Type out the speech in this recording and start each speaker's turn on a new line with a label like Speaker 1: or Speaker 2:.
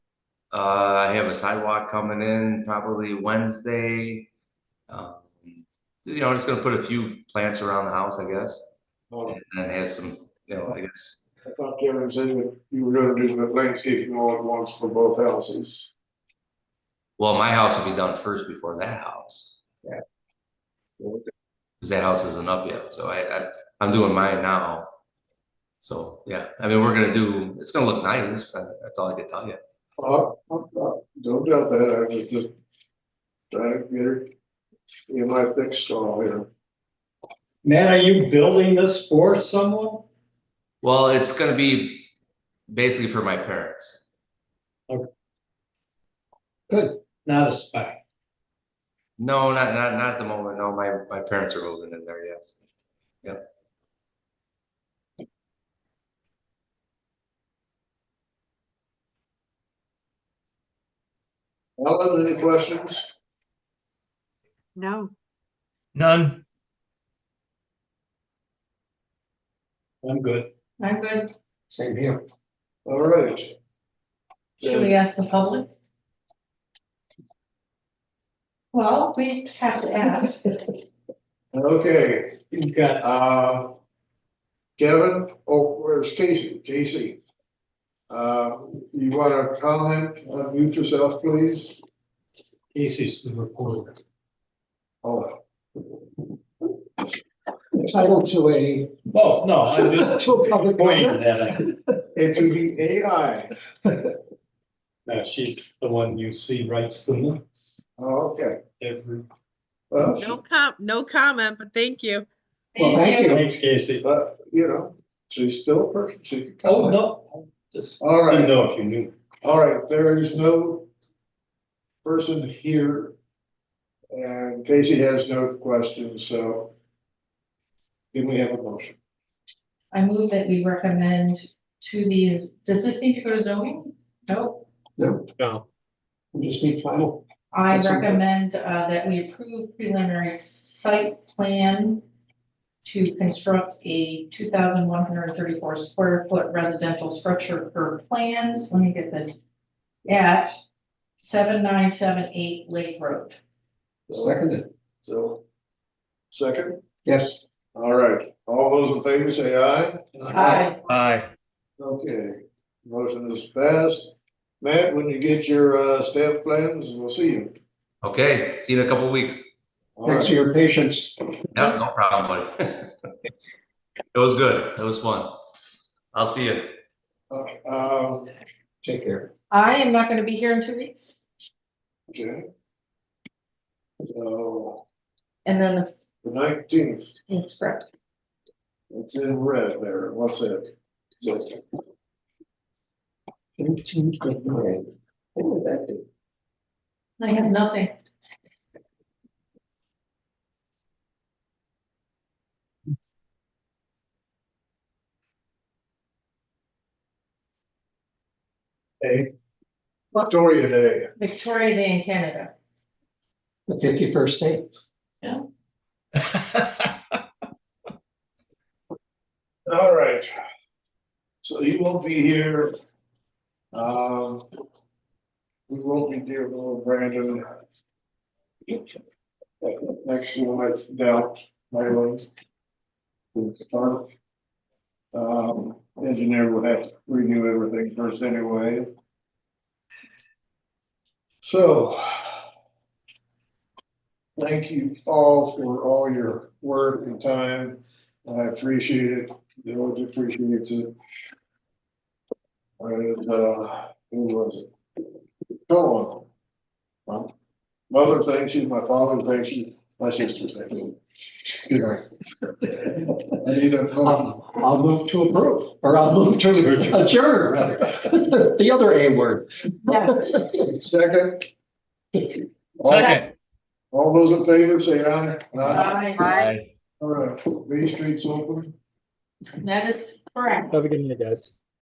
Speaker 1: Uh, I have a sidewalk coming in probably Wednesday. Um, You know, just gonna put a few plants around the house, I guess,
Speaker 2: Oh,
Speaker 1: and then have some, you know, I guess.
Speaker 2: I thought Kevin said that you were gonna do the landscaping all at once for both houses.
Speaker 1: Well, my house will be done first before that house.
Speaker 2: Yeah.
Speaker 1: Cause that house isn't up yet, so I, I, I'm doing mine now. So, yeah, I mean, we're gonna do, it's gonna look nice, that- that's all I can tell you.
Speaker 2: Uh, uh, uh, don't doubt that, I was just trying to get her in my thick stall here.
Speaker 3: Matt, are you building this for someone?
Speaker 1: Well, it's gonna be basically for my parents.
Speaker 3: Not a spec.
Speaker 1: No, not, not, not at the moment, no, my, my parents are moving in there, yes.
Speaker 2: Alan, any questions?
Speaker 4: No,
Speaker 5: None.
Speaker 3: I'm good.
Speaker 6: I'm good.
Speaker 3: Same here.
Speaker 2: All right.
Speaker 6: Should we ask the public? Well, we have to ask.
Speaker 2: Okay,
Speaker 3: You've got,
Speaker 2: uh, Kevin, oh, where's Casey? Casey? Uh, you wanna comment, uh, mute yourself, please?
Speaker 3: Casey's the reporter.
Speaker 2: Oh,
Speaker 7: entitled to a,
Speaker 3: Oh, no, I'm just
Speaker 7: to a public
Speaker 3: pointing to
Speaker 7: comment.
Speaker 3: that.
Speaker 2: it would be AI.
Speaker 3: No, she's the one you see writes the notes
Speaker 2: Oh, Okay,
Speaker 3: every,
Speaker 2: well,
Speaker 4: no com, no comment, but thank you.
Speaker 7: Well, thank you.
Speaker 3: thanks Casey.
Speaker 2: but, you know, she's still a person, she could
Speaker 3: Oh,
Speaker 2: comment.
Speaker 3: no, just
Speaker 2: All
Speaker 3: didn't
Speaker 2: right,
Speaker 3: know if you knew.
Speaker 2: all right, there is no person here. And Casey has no questions, so can we have a motion?
Speaker 6: I move that we recommend to these, does this need to go to zoning? Nope.
Speaker 7: We just need final.
Speaker 6: I
Speaker 7: Yes, sir.
Speaker 6: recommend uh, that we approve preliminary site plan to construct a two thousand one hundred and thirty-four square foot residential structure per plans. Let me get this. At seven nine seven eight Lake Road.
Speaker 7: Seconded,
Speaker 2: So, second,
Speaker 7: yes.
Speaker 2: all right, all those in favor say aye.
Speaker 5: Aye.
Speaker 2: Okay, motion is passed. Matt, when you get your uh staff plans, we'll see you.
Speaker 1: Okay, see you in a couple weeks.
Speaker 2: All
Speaker 7: Thanks for
Speaker 2: right.
Speaker 7: your patience.
Speaker 1: No, no problem, buddy. It was good, it was fun. I'll see you.
Speaker 2: Um,
Speaker 7: Take care.
Speaker 6: I am not gonna be here in two weeks.
Speaker 2: okay. So,
Speaker 6: And then the
Speaker 2: the nineteenth,
Speaker 6: scene's correct.
Speaker 2: it's in red there, what's it? So,
Speaker 7: Eighteen fifty-nine. What would that be?
Speaker 6: I have nothing.
Speaker 2: Hey. Victoria Day,
Speaker 6: Victoria Day in Canada.
Speaker 7: The fifty-first day.
Speaker 2: all right. So you won't be here. Um. We won't be there, little Brandon. Next one, I doubt, my one. Um, engineer would have to renew everything first anyway. So. Thank you all for all your work and time. I appreciate it. The village appreciates it. And, uh, who was it? Dawn. My Mother thanks you, my father thanks you, my sister thanks you. I need a motion.
Speaker 7: I'll Um, I'll move to approve, or I'll move to adjourn, rather. The other A word.
Speaker 2: Second. All-
Speaker 5: Second.
Speaker 2: All those in favor, say aye.
Speaker 6: Aye.
Speaker 2: All right, B Street's open.
Speaker 6: That is correct.
Speaker 8: Have a good night, guys.